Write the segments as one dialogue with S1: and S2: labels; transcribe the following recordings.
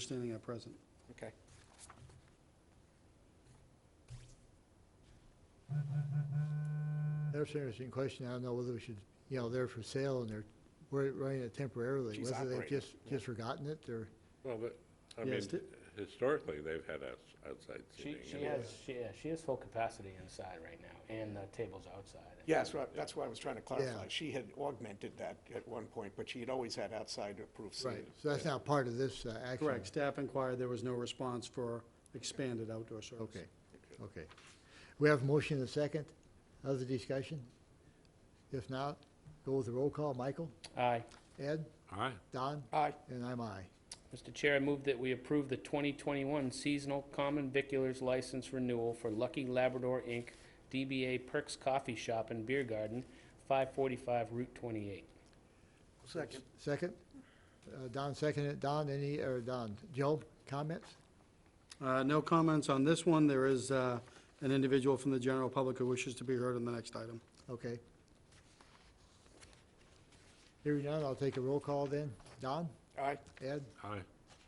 S1: understanding at present.
S2: Okay.
S3: That's an interesting question. I don't know whether we should, you know, they're for sale and they're, we're running it temporarily.
S2: She's
S3: Whether they've
S2: operating,
S3: just, just forgotten it or,
S4: Well, but, I
S1: Yeah,
S4: mean,
S1: it's di-
S4: historically, they've had us outside
S5: She,
S4: seating.
S5: she
S4: anyway.
S5: has, she, yeah, she has full capacity inside right now, and the table's outside.
S2: Yes, that's why I was trying to clarify.
S3: Yeah.
S2: She had augmented that at one point, but she had always had outside approved
S3: right.
S2: seating.
S3: So that's not part of this uh, action.
S1: Correct. Staff inquired, there was no response for expanded outdoor service.
S3: Okay, okay. We have a motion and a second. Other discussion? If not, go with the roll call. Michael?
S5: Aye.
S3: Ed?
S4: Aye,
S3: Don?
S2: Aye,
S3: And I'm aye.
S5: Mr. Chair, I move that we approve the 2021 seasonal common viculars license renewal for Lucky Labrador, Inc., DBA Perks Coffee Shop and Beer Garden, 545 Route 28.
S2: second.
S3: Second? Uh, Don seconded. it. Don, any, or Don, Joe, comments?
S1: Uh, No comments on this one. There is uh, an individual from the general public who wishes to be heard on the next item.
S3: Okay. Hearing none, I'll take a roll call then. Don?
S2: Aye,
S3: Ed?
S4: aye.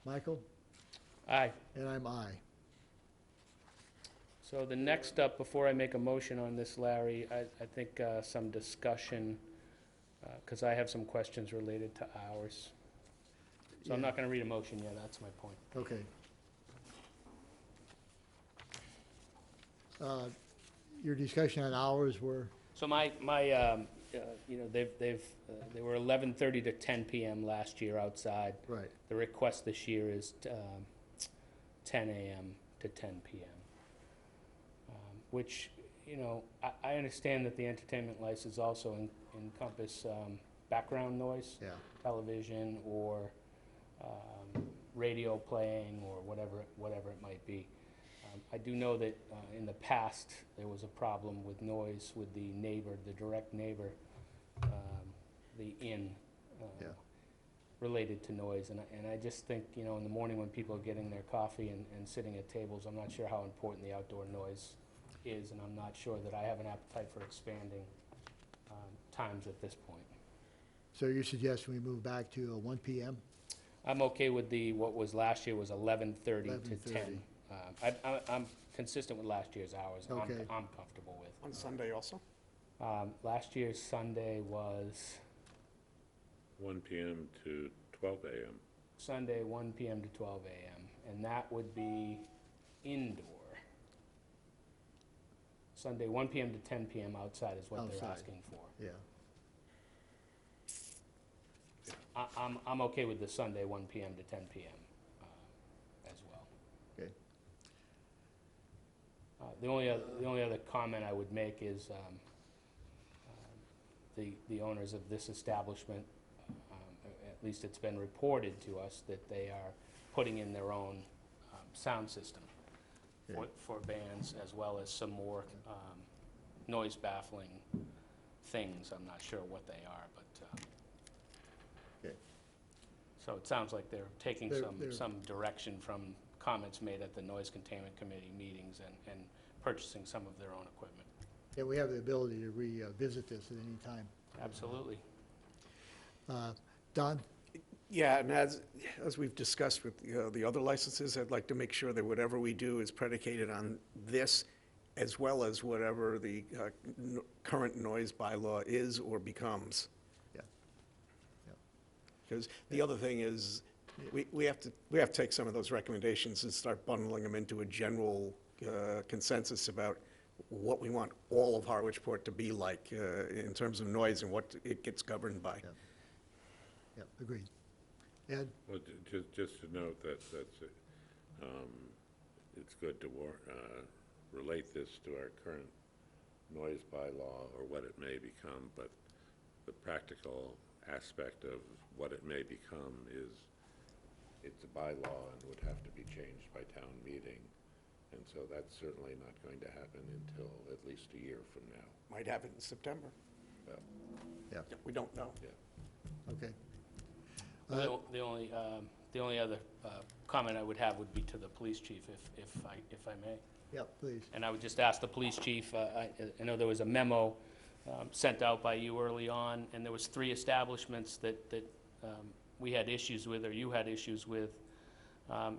S3: Michael?
S5: Aye.
S3: And I'm aye.
S5: So the next up, before I make a motion on this, Larry, I, I think uh, some discussion, because I have some questions related to hours. So I'm not going to read a motion yet, that's my point.
S3: Okay. Uh, Your discussion on hours were,
S5: So my, my, um, uh, you know, they've, they've, uh, they were eleven thirty to ten PM last year outside.
S3: right,
S5: The request this year is, um, ten AM to ten PM. Um, Which, you know, I, I understand that the entertainment license also en- encompass, um, background noise,
S3: yeah,
S5: television or, um, radio playing or whatever, whatever it might be. Um, I do know that uh, in the past, there was a problem with noise with the neighbor, the direct neighbor, um, the inn, um,
S3: Yeah.
S5: related to noise. And I, and I just think, you know, in the morning when people are getting their coffee and, and sitting at tables, I'm not sure how important the outdoor noise is, and I'm not sure that I have an appetite for expanding um, times at this point.
S3: so you suggest we move back to uh, one PM?
S5: I'm okay with the, what was last year was eleven thirty to
S3: 11:30.
S5: ten. Uh, I, I, I'm consistent with last year's hours, I'm,
S3: Okay.
S5: I'm comfortable with.
S2: on Sunday also?
S5: Um, last year's Sunday was,
S4: One PM to twelve AM.
S5: Sunday, one PM to twelve AM, and that would be indoor. Sunday, one PM to ten PM outside is what they're
S3: Outside.
S5: asking for.
S3: Yeah,
S5: I, I'm, I'm okay with the Sunday, one PM to ten PM, uh, as well.
S3: okay,
S5: Uh, The only, oth- the only other comment I would make is um, um, the, the owners of this establishment, um, a- at least it's been reported to us, that they are putting in their own um, sound system for, for bands as well as some more um, noise baffling things. I'm not sure what they are, but, uh,
S3: okay.
S5: so it sounds like they're taking
S3: They're-
S5: some,
S3: they're-
S5: some direction from comments made at the Noise Containment Committee meetings and, and purchasing some of their own equipment.
S3: Yeah, we have the ability to revisit this at any time.
S5: Absolutely.
S3: Uh, Don?
S2: Yeah, and as, as we've discussed with you know, the other licenses, I'd like to make sure that whatever we do is predicated on this as well as whatever the uh, n- current noise bylaw is or becomes.
S3: Yeah.
S2: Because the other thing is, we, we have to, we have to take some of those recommendations and start bundling them into a general uh, consensus about what we want all of Harwichport to be like uh, in terms of noise and what it gets governed by.
S3: Yep, agreed. Ed?
S4: Well, just, just to note that, that's, uh, um, it's good to war, uh, relate this to our current noise bylaw or what it may become, but the practical aspect of what it may become is it's a bylaw and would have to be changed by town meeting. And so that's certainly not going to happen until at least a year from now.
S2: Might happen in September.
S4: Well,
S3: Yeah,
S2: We don't know.
S4: yeah.
S3: okay. Uh,
S5: The the only, um, the only other uh, comment I would have would be to the police chief, if, if I, if I may.
S3: Yep, please.
S5: And I would just ask the police chief, uh, I I know there was a memo um, sent out by you early on, and there was three establishments that, that um, we had issues with, or you had issues with, Um,